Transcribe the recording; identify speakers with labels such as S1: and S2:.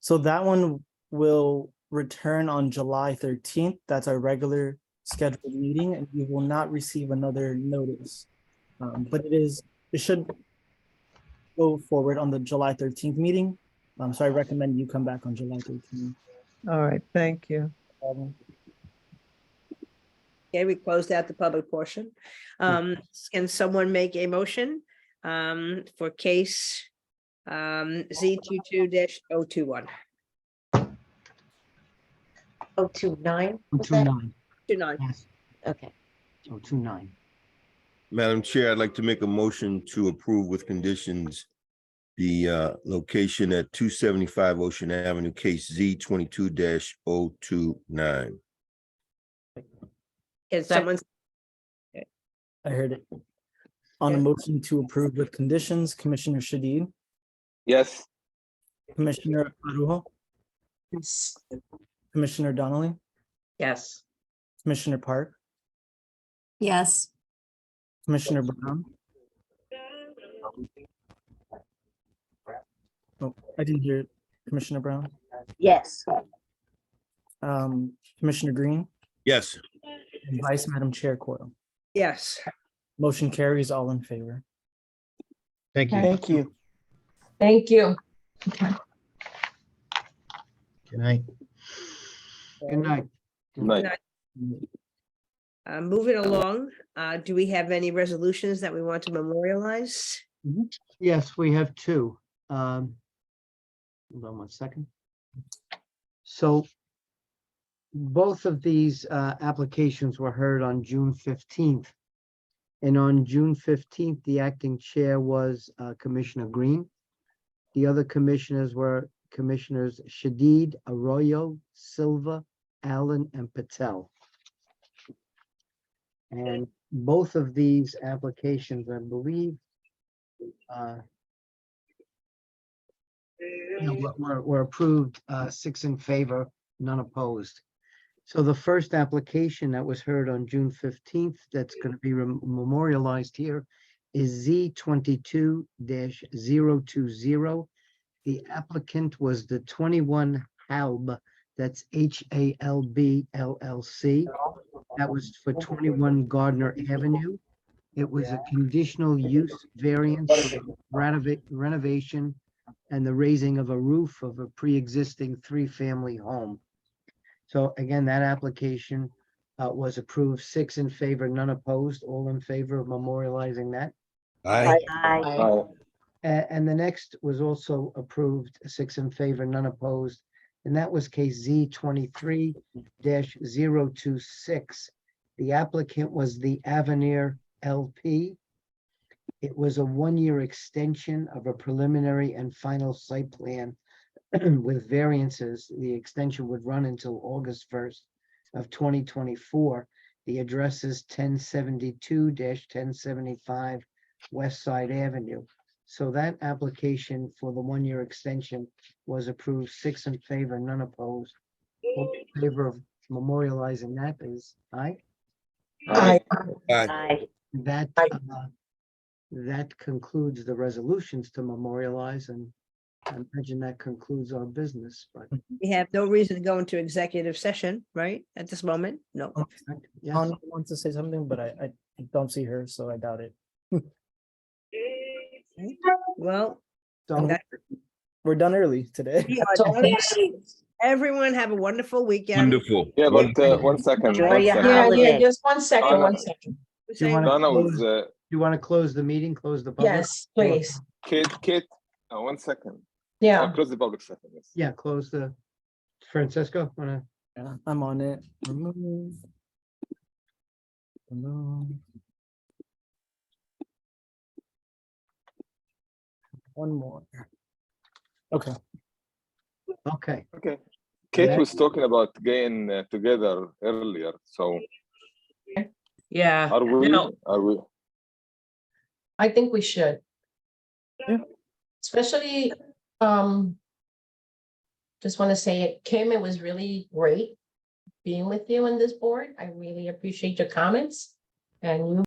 S1: So that one will return on July thirteenth. That's our regular scheduled meeting and you will not receive another notice. Um, but it is, it should go forward on the July thirteenth meeting. Um, so I recommend you come back on July thirteenth.
S2: All right, thank you.
S3: Okay, we closed out the public portion.
S4: Hmm.
S3: Um, can someone make a motion, um, for case, um, Z 22 dash oh two one,
S5: Oh, two nine?
S4: Oh,
S5: was
S4: two
S5: that?
S4: nine,
S3: two nine?
S4: yes.
S5: Okay,
S4: Oh, two nine.
S6: Madam Chair, I'd like to make a motion to approve with conditions the uh, location at two seventy-five Ocean Avenue, case Z twenty-two oh 29
S3: Can someone,
S1: I heard it. On a motion to approve with conditions, Commissioner Shadid,
S7: Yes,
S1: Commissioner Arujo,
S4: Yes.
S1: Commissioner Donnelly,
S3: yes,
S1: Commissioner Park,
S8: Yes,
S1: Commissioner Brown. Oh, I didn't hear Commissioner Brown,
S5: yes,
S1: um, Commissioner Green,
S6: Yes,
S1: and Vice Madam Chair Coyle.
S3: yes.
S1: Motion carries all in favor.
S9: Thank you.
S1: Thank you.
S10: Thank you.
S9: Good night.
S4: Good night.
S7: night.
S3: Uh, moving along, uh, do we have any resolutions that we want to memorialize?
S4: Yes, we have two. Um, Hold on one second. So both of these uh, applications were heard on June fifteenth. And on June fifteenth, the acting chair was uh, Commissioner Green. The other commissioners were Commissioners Shadid, Arroyo, Silva, Allen, and Patel. And both of these applications, I believe, uh, you know, were- were, were approved, uh, six in favor, none opposed. So the first application that was heard on June fifteenth, that's gonna be rem- memorialized here, is Z twenty-two 20 The applicant was the twenty-one Halb, that's H A L B L L C. That was for twenty-one Gardner Avenue. It was a conditional use variance for renova- renovation and the raising of a roof of a pre-existing three-family home. So again, that application uh, was approved, six in favor, none opposed, all in favor of memorializing that.
S6: aye,
S5: I,
S7: Aye.
S4: A- And, the next was also approved, six in favor, none opposed. And that was case Z twenty-three 26 The applicant was the Avenir LP. It was a one-year extension of a preliminary and final site plan with variances. The extension would run until August first of twenty twenty-four. The address is ten seventy-two ten seventy-five West Side Avenue. So that application for the one-year extension was approved, six in favor, none opposed. All in favor of memorializing that is aye.
S7: Aye.
S6: aye.
S5: I,
S4: That,
S5: Aye.
S4: uh, that concludes the resolutions to memorialize and I imagine that concludes our business, but
S3: We have no reason to go into executive session, right, at this moment? No.
S4: yes,
S1: Hon wants to say something, but I, I don't see her, so I doubt it.
S3: Well,
S4: so
S3: that-
S1: We're done early today.
S3: yeah, everyone have a wonderful weekend.
S6: Wonderful.
S7: Yeah, but uh,
S6: wonderful.
S7: one second.
S5: Enjoy
S7: one
S5: your
S7: second.
S10: Yeah, yeah,
S5: Holiday.
S10: just one second, one
S7: Anna.
S10: second.
S3: We're
S4: Do you
S3: saying-
S4: wanna-
S7: Donna was, uh,
S4: you want to close the meeting, close the public?
S10: Yes, please.
S7: Kate, Kate, uh, one second. Uh,
S10: Yeah.
S7: Close the public second, yes.
S4: Yeah, close the, Francesco, wanna?
S1: Yeah, I'm on it. Remove. Remove. One more. Okay.
S4: Okay,
S7: Okay. Kate
S4: Yeah.
S7: was talking about getting uh, together earlier, so
S10: Yeah.
S7: are we,
S10: No.
S7: are we?
S10: I think we should.
S1: Yeah.
S10: Especially, um. Just want to say, Kim, it was really great being with you on this board. I really appreciate your comments. And you